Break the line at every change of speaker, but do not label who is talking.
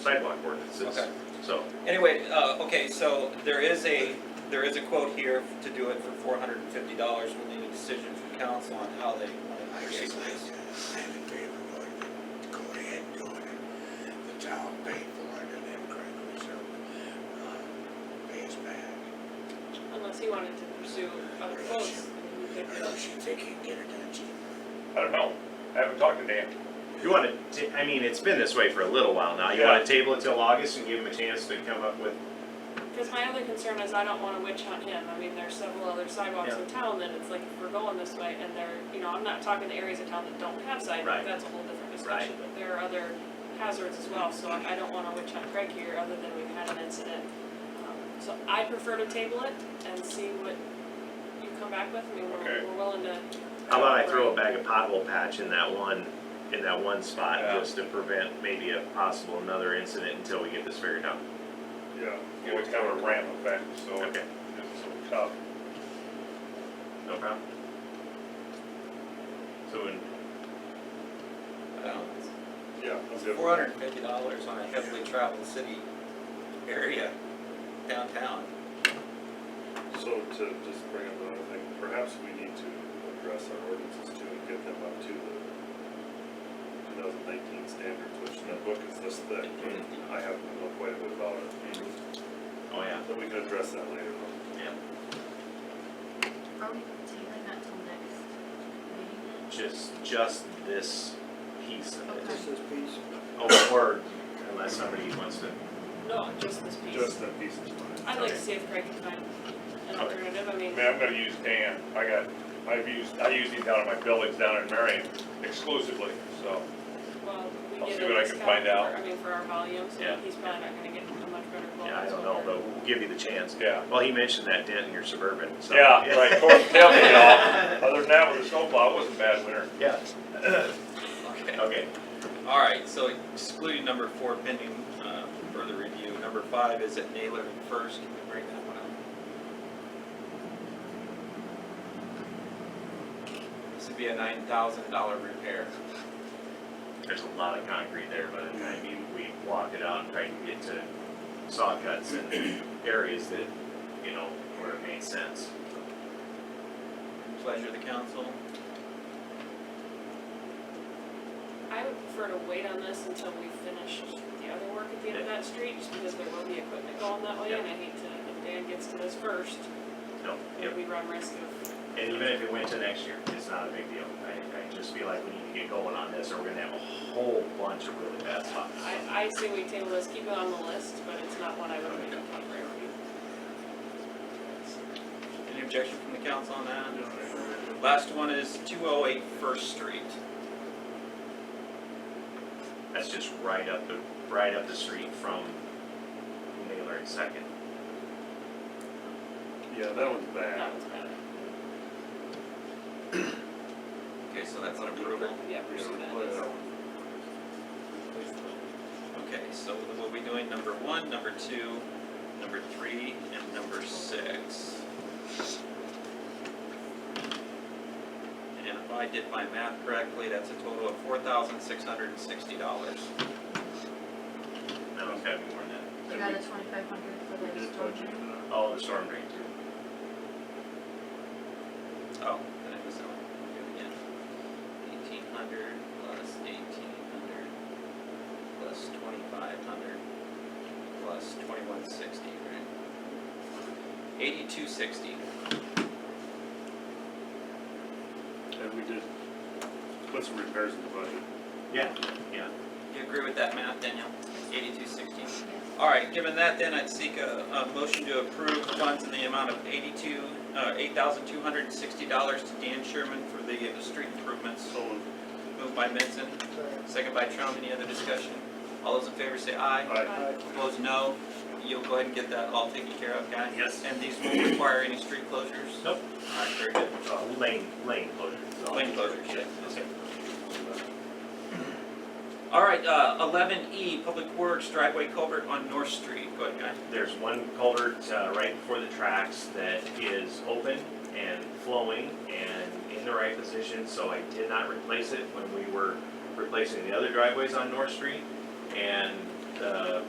sidewalk ordinances.
Okay.
So,
Anyway, uh, okay, so there is a, there is a quote here to do it for four hundred and fifty dollars. We'll need a decision from council on how they
I
want to proceed
guess
with this.
I, I'm in favor of going, to go ahead and doing it. The town paid for it and then Craig so, uh, pay us back.
Unless he wanted to pursue other quotes. I mean, we
I
could,
don't
uh,
she think he can get it done cheaper.
I don't know. I haven't talked to Dan.
you wanna, ta- I mean, it's been this way for a little while now, you
Yeah.
wanna table it till August and give them a chance to come up with,
Cause my other concern is I don't wanna witch hunt him, I mean, there's several other sidewalks in town that it's like, if we're going this way and they're, you know, I'm not talking to areas of town that don't have sidewalks,
Right.
that's a whole different discussion, but there are other hazards as well, so I I don't wanna witch hunt Greg here, other than we've had an incident. Um, So I prefer to table it and see what you come back with, I mean,
Okay.
we're, we're willing to.
how about I throw a bag of pothole patch in that one, in that one spot,
Yeah.
just to prevent maybe a possible another incident until we get this figured out.
Yeah. It was kind of a ramp effect, so it's
Okay,
so tough.
no problem. So, when-
Yeah.
um, Four hundred and fifty dollars on a heavily traveled city area downtown.
So to just bring up another thing, perhaps we need to address our ordinances too and get them up to the two thousand nineteen standards, which that book is this thick, but I haven't looked quite a bit about it.
oh yeah,
So we can address that later on.
yeah,
Are we tabling that till next meeting?
just, just this piece of
Okay.
it.
This
is peace.
Oh, or unless somebody wants to,
No, just this piece.
Just that piece of mind.
I'd like
Okay.
to see if Greg can find an
Okay.
alternative, I
I
mean,
mean, I'm gonna use Dan. I got, I've used, I use him down in my buildings down in Marion exclusively, so.
well, we
I'll
get
see
a
what I can
discount
find
for,
out.
I mean, for our volume,
Yeah.
so he's probably not gonna get a much better quote.
yeah, I don't know, but we'll give you the chance.
Yeah.
Well, he mentioned that dent in your Suburban, so.
Yeah, right, tore the tailgate off. Other than that, with the snowplow, it wasn't a bad winter.
Yeah,
Okay.
okay,
All right, so excluding number four pending uh, further review. Number five is at Naylor and First. Can we bring that one up? This would be a nine thousand dollar repair.
there's a lot of concrete there by the time you, we walked it out and tried to get to saw cuts and areas that, you know, where it made sense.
Pleasure of the council.
I would prefer to wait on this until we finish the other work at the end of that street, just because there will be equipment going that way,
Yeah.
and I hate to, if Dan gets to this first,
No,
then
yep,
we run risk of,
and even if it went to next year, it's not a big deal. I, I just feel like we need to get going on this or we're gonna have a whole bunch of really bad spots.
I, I say we table this, keep it on the list, but it's not one I would make a top priority.
Any objection from the council on that? Last one is two oh eight First Street.
That's just right up the, right up the street from Naylor and Second.
Yeah, that one's bad.
That one's bad.
Okay, so that's an approval.
Yeah,
You
pursue
know,
that.
but-
Okay, so we'll be doing number one, number two, number three, and number six. And if I did my math correctly, that's a total of four thousand six hundred and sixty dollars.
No, it's gotta be more than that.
You got a twenty-five hundred for
we
the
did
storm
budget
drain?
it out.
All the storm drains.
Oh, then it was, on. do it again. Eighteen hundred plus eighteen hundred plus twenty-five hundred plus twenty-one sixty, right? Eighty-two sixty.
And we did put some repairs in the budget.
Yeah, yeah.
You agree with that math, Danielle? Eighty-two sixteen.
Yes.
All right, given that, then I'd seek a, a motion to approve funds in the amount of eighty-two, uh, eight thousand two hundred and sixty dollars to Dan Sherman for the uh, street improvements.
So
Moved by Benson, second by Trump. Any other discussion? All those in favor say aye.
I,
Opposed, no. You'll go ahead and get that all taken care of, guys?
Yes.
And these won't require any street closures?
Nope.
All right, very good.
Uh, Lane, lane closures.
Lane closures, yeah.
Okay.
All right, uh, eleven E, Public Works driveway culvert on North Street. Go ahead, guys.
There's one culvert uh, right before the tracks that is open and flowing and in the right position, so I did not replace it when we were replacing the other driveways on North Street. And uh, the